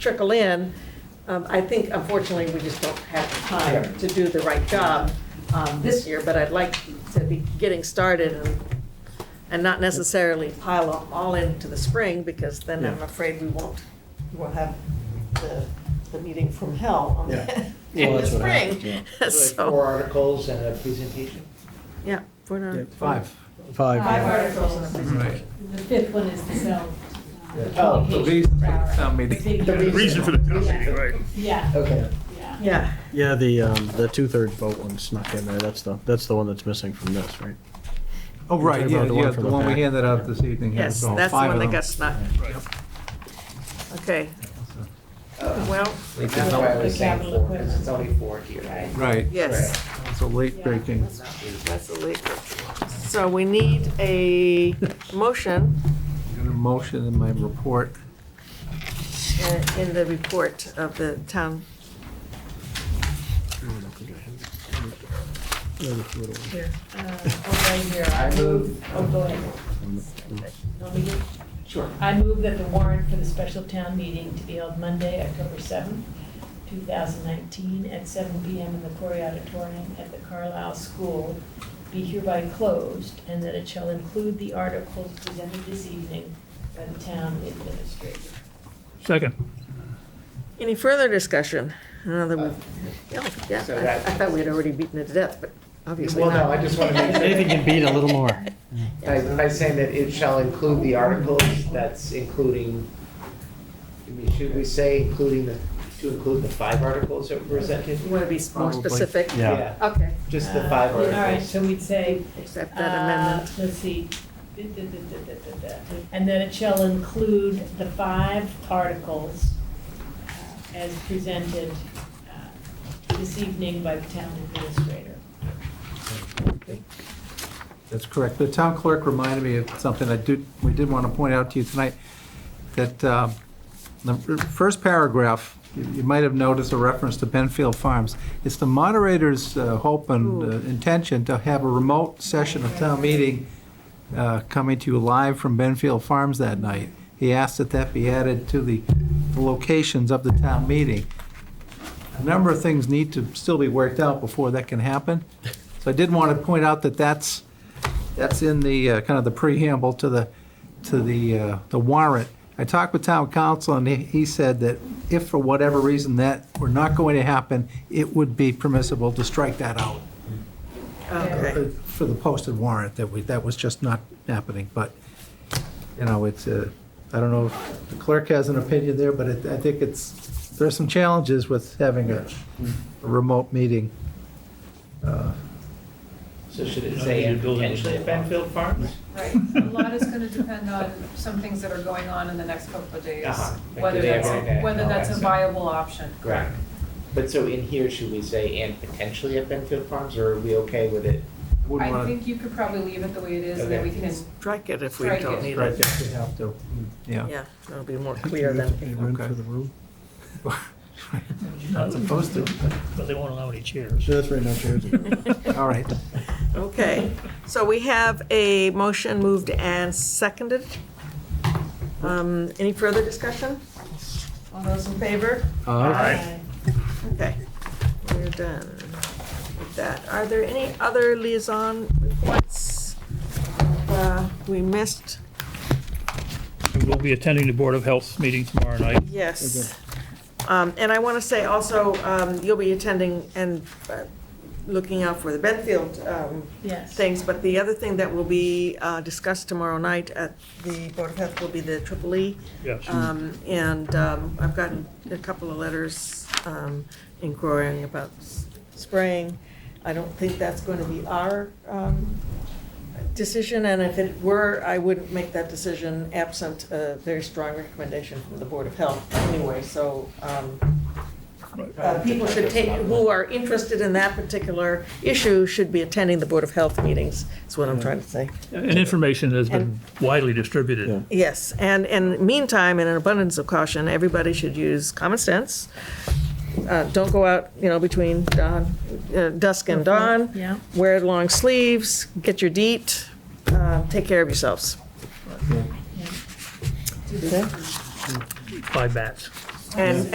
trickle in. Um, I think unfortunately, we just don't have time Yeah. to do the right job um, this year, but I'd like to be getting started and, and not necessarily pile them all into the spring, because then I'm Yeah. afraid we won't, we'll have the, the meeting from hell on Yeah. the, Yeah. in Well, the that's what happened, spring. Like Four So, articles and a presentation? yeah. we're not- Five. Five Five. articles. and a Right. The fifth one is to sell. uh, Yeah. Oh, The reason for the town meeting. Big- The Reason for the town Yeah. meeting, right. Yeah, Okay. yeah. Yeah, Yeah, the, um, the two-third vote one snuck in there, that's the, that's the one that's missing from this, right? Oh, right, You're yeah, talking about the one yeah, from the the one we back. handed out this evening. has yes, all that's the five one of that got them. snuck. Okay, Uh, well, That's why I was saying four, because it's only four here. Right. yes. It's a late breaking. That's a leak. So we need a motion Got a motion in my report. uh, in the report of the town. Uh, oh, right here, I move, oh, go ahead. Want me to? Sure. I move that the warrant for the special town meeting to be held Monday, October seventh, two thousand nineteen, at seven P M in the Corey Auditorium at the Carlisle School be hereby closed, and that it shall include the articles presented this evening by the town administrator. Second. Any further discussion? Another, we- oh, yeah, So I that- I thought we had already beaten it to death, but obviously Well, no, I not. just want to make Anything sure, can beat a little more. by- by saying that it shall include the articles, that's including, I mean, should we say including the, to include the five articles that were presented? You want to be more Probably. specific? Yeah. Okay, Just the Uh, five All right, articles. so we'd say accept that Uh, amendment. Let's see. Da, da, da, da, da, da, da. And that it shall include the five articles uh, as presented uh, this evening by the town administrator. That's correct. The town clerk reminded me of something I did, we did want to point out to you tonight, that um, the first paragraph, you you might have noticed a reference to Benfield Farms. It's the moderator's uh, hope and uh, intention to have a remote session of town meeting uh, coming to you live from Benfield Farms that night. He asked that that be added to the the locations of the town meeting. A number of things need to still be worked out before that can happen. So I did want to point out that that's, that's in the, uh, kind of the preamble to the, to the, uh, the warrant. I talked with town council, and he, he said that if for whatever reason that were not going to happen, it would be permissible to strike that out Okay, uh, for the posted warrant, that we, that was just not happening, but, you know, it's, uh, I don't know if the clerk has an opinion there, but it- I think it's, there are some challenges with having a a remote meeting. uh, So should it say potentially at Benfield Farms? Right, a lot is gonna depend on some things that are going on in the next couple of days. Uh-huh. Like Whether the day that's, of a- Monday, whether all that's that a stuff. viable option. Correct. But so in here, should we say and potentially at Benfield Farms, or are we okay with it? Wouldn't I want think you could probably leave it the way it is, and then we Okay. can, strike it if we Strike don't it. need to strike it. if we have to, yeah. Yeah, it'll be more clear than, Okay. Not supposed to. But they won't allow any chairs. So that's right now, Chair. All right, okay. So we have a motion moved and seconded. Um, Any further discussion? All those in favor? uh, Okay, we're done with that. Are there any other liaison reports uh, we missed? We will be attending the Board of Health meeting tomorrow night. Yes. Um, And I want to say also, um, you'll be attending and uh, looking out for the Benfield um, Yes. things, but the other thing that will be uh, discussed tomorrow night at the Board of Health will be the triple E. Yes. Um, And um, I've gotten a couple of letters um, inquiring about s- spraying. I don't think that's going to be our um, decision, and if it were, I wouldn't make that decision absent a very strong recommendation from the Board of Health anyway, so um, uh, people should take, who are interested in that particular issue should be attending the Board of Health meetings, is what I'm trying to say. And information has been widely distributed. Yes, and in meantime, in an abundance of caution, everybody should use common sense. Uh, Don't go out, you know, between dawn, uh, dusk and dawn. Yeah. Wear long sleeves, get your DEET, uh, take care of yourselves. Five bats. And,